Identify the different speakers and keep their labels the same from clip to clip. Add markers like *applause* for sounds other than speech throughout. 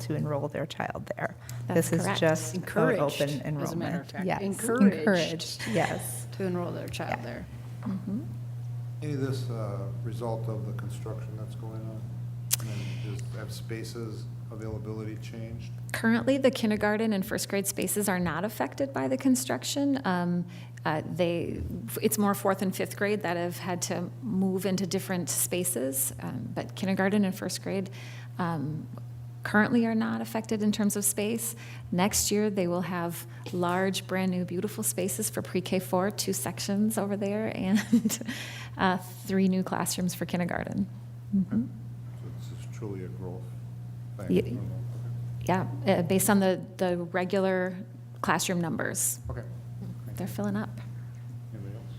Speaker 1: to enroll their child there.
Speaker 2: That's
Speaker 1: This is
Speaker 2: correct.
Speaker 1: just about
Speaker 3: Encouraged,
Speaker 1: open
Speaker 3: as a
Speaker 1: enrollment.
Speaker 3: matter of fact.
Speaker 1: Yes.
Speaker 3: Encouraged.
Speaker 1: Yes.
Speaker 3: to enroll their child
Speaker 1: Yeah.
Speaker 3: there.
Speaker 1: Mhm.
Speaker 4: Any of this uh, result of the construction that's going on? I mean, does- Have spaces availability changed?
Speaker 2: Currently, the kindergarten and first grade spaces are not affected by the construction. Um, uh, They, it's more fourth and fifth grade that have had to move into different spaces, um, but kindergarten and first grade um, currently are not affected in terms of space. Next year, they will have large, brand-new, beautiful spaces for pre-K four, two sections over there, *laughs* and uh, three new classrooms for kindergarten. Mhm.
Speaker 4: So This is truly a growth
Speaker 2: Ye-
Speaker 4: thing.
Speaker 2: Yeah, uh, based on the, the regular classroom numbers,
Speaker 4: Oh, Okay.
Speaker 2: they're filling up.
Speaker 4: Anybody else?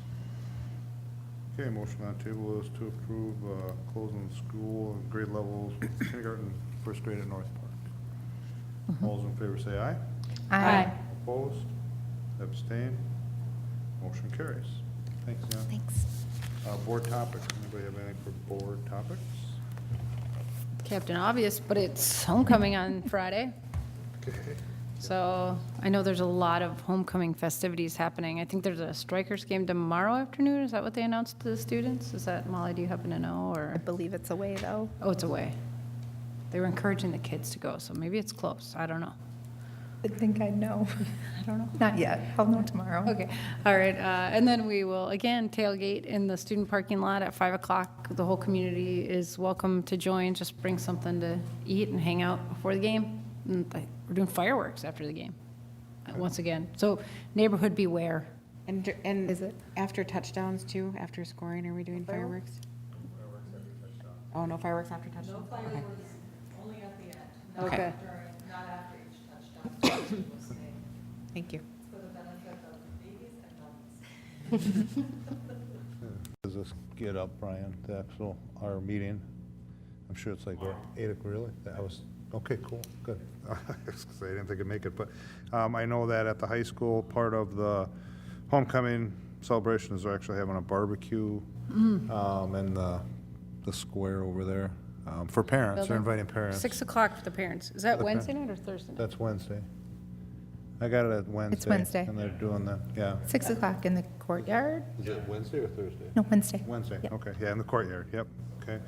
Speaker 4: Okay, motion on the table is to approve uh, closing the school and grade levels, kindergarten, first grade at North Park. All those in favor say aye.
Speaker 2: Aye.
Speaker 4: Opposed? Abstain? Motion carries. Thanks, Ann.
Speaker 2: Thanks.
Speaker 4: Uh, Board topics, anybody have anything for board topics?
Speaker 3: Captain Obvious, but it's
Speaker 1: *laughs*
Speaker 3: homecoming on Friday. So I know there's a lot of homecoming festivities happening. I think there's a strikers game tomorrow afternoon. Is that what they announced to the students? Is that, Molly, do you happen to know,
Speaker 1: I
Speaker 3: or?
Speaker 1: believe it's away, though.
Speaker 3: Oh, it's away. They were encouraging the kids to go, so maybe it's close. I don't know.
Speaker 1: I think I know. *laughs*
Speaker 3: I don't know.
Speaker 1: Not yet. I'll know tomorrow.
Speaker 3: Okay, all right, uh, and then we will, again, tailgate in the student parking lot at 5 o'clock. The whole community is welcome to join, just bring something to eat and hang out before the game. And I- We're doing fireworks after the game, uh, once again. So neighborhood beware.
Speaker 5: And, dur-
Speaker 1: Is
Speaker 5: and
Speaker 1: it?
Speaker 5: after touchdowns too, after scoring, are we doing fireworks? Oh, no fireworks after touchdown? No fireworks, only at the end. Okay, *coughs* thank you.
Speaker 4: Does this get up, Brian, the actual, our meeting? I'm sure it's like, what, eight o'clock, really? That was, okay, cool, *laughs* good. I was gonna say, I didn't think it'd make it, but um, I know that at the high school, part of the homecoming celebration is they're actually having a barbecue um, in the, the square over there um, for parents, they're inviting parents.
Speaker 3: 6 o'clock for the parents. Is that
Speaker 4: the
Speaker 3: Wednesday night or Thursday night?
Speaker 4: That's Wednesday. I got it at Wednesday.
Speaker 1: Wednesday.
Speaker 4: And they're doing that, yeah.
Speaker 1: Six o'clock in the courtyard?
Speaker 4: Is it Wednesday or Thursday?
Speaker 1: No, Wednesday.
Speaker 4: Wednesday,
Speaker 1: Yep.
Speaker 4: okay, yeah, in the courtyard, yep, okay.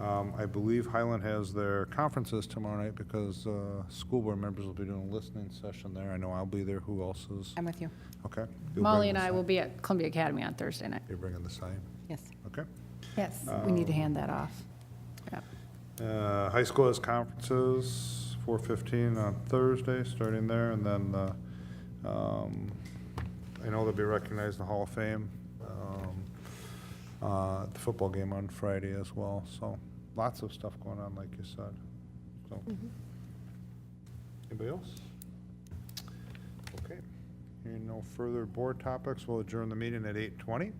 Speaker 4: Um, I believe Highland has their conferences tomorrow night because uh, school board members will be doing a listening session there. I know I'll be there, who else is?
Speaker 5: I'm with you,
Speaker 4: Okay. You'll
Speaker 3: Molly
Speaker 4: bring
Speaker 3: and
Speaker 4: the
Speaker 3: I
Speaker 4: sign.
Speaker 3: will be at Columbia Academy on Thursday night.
Speaker 4: You're bringing the sign,
Speaker 5: yes.
Speaker 4: okay.
Speaker 1: Yes.
Speaker 3: We need to hand that off. Yeah.
Speaker 4: Uh, High school has conferences, 4:15 on Thursday, starting there, and then uh, um, I know they'll be recognized in the Hall of Fame, um, uh, at the football game on Friday as well, so lots of stuff going on, like you said. So, Anybody else? Okay, hearing no further board topics, we'll adjourn the meeting at 8:20.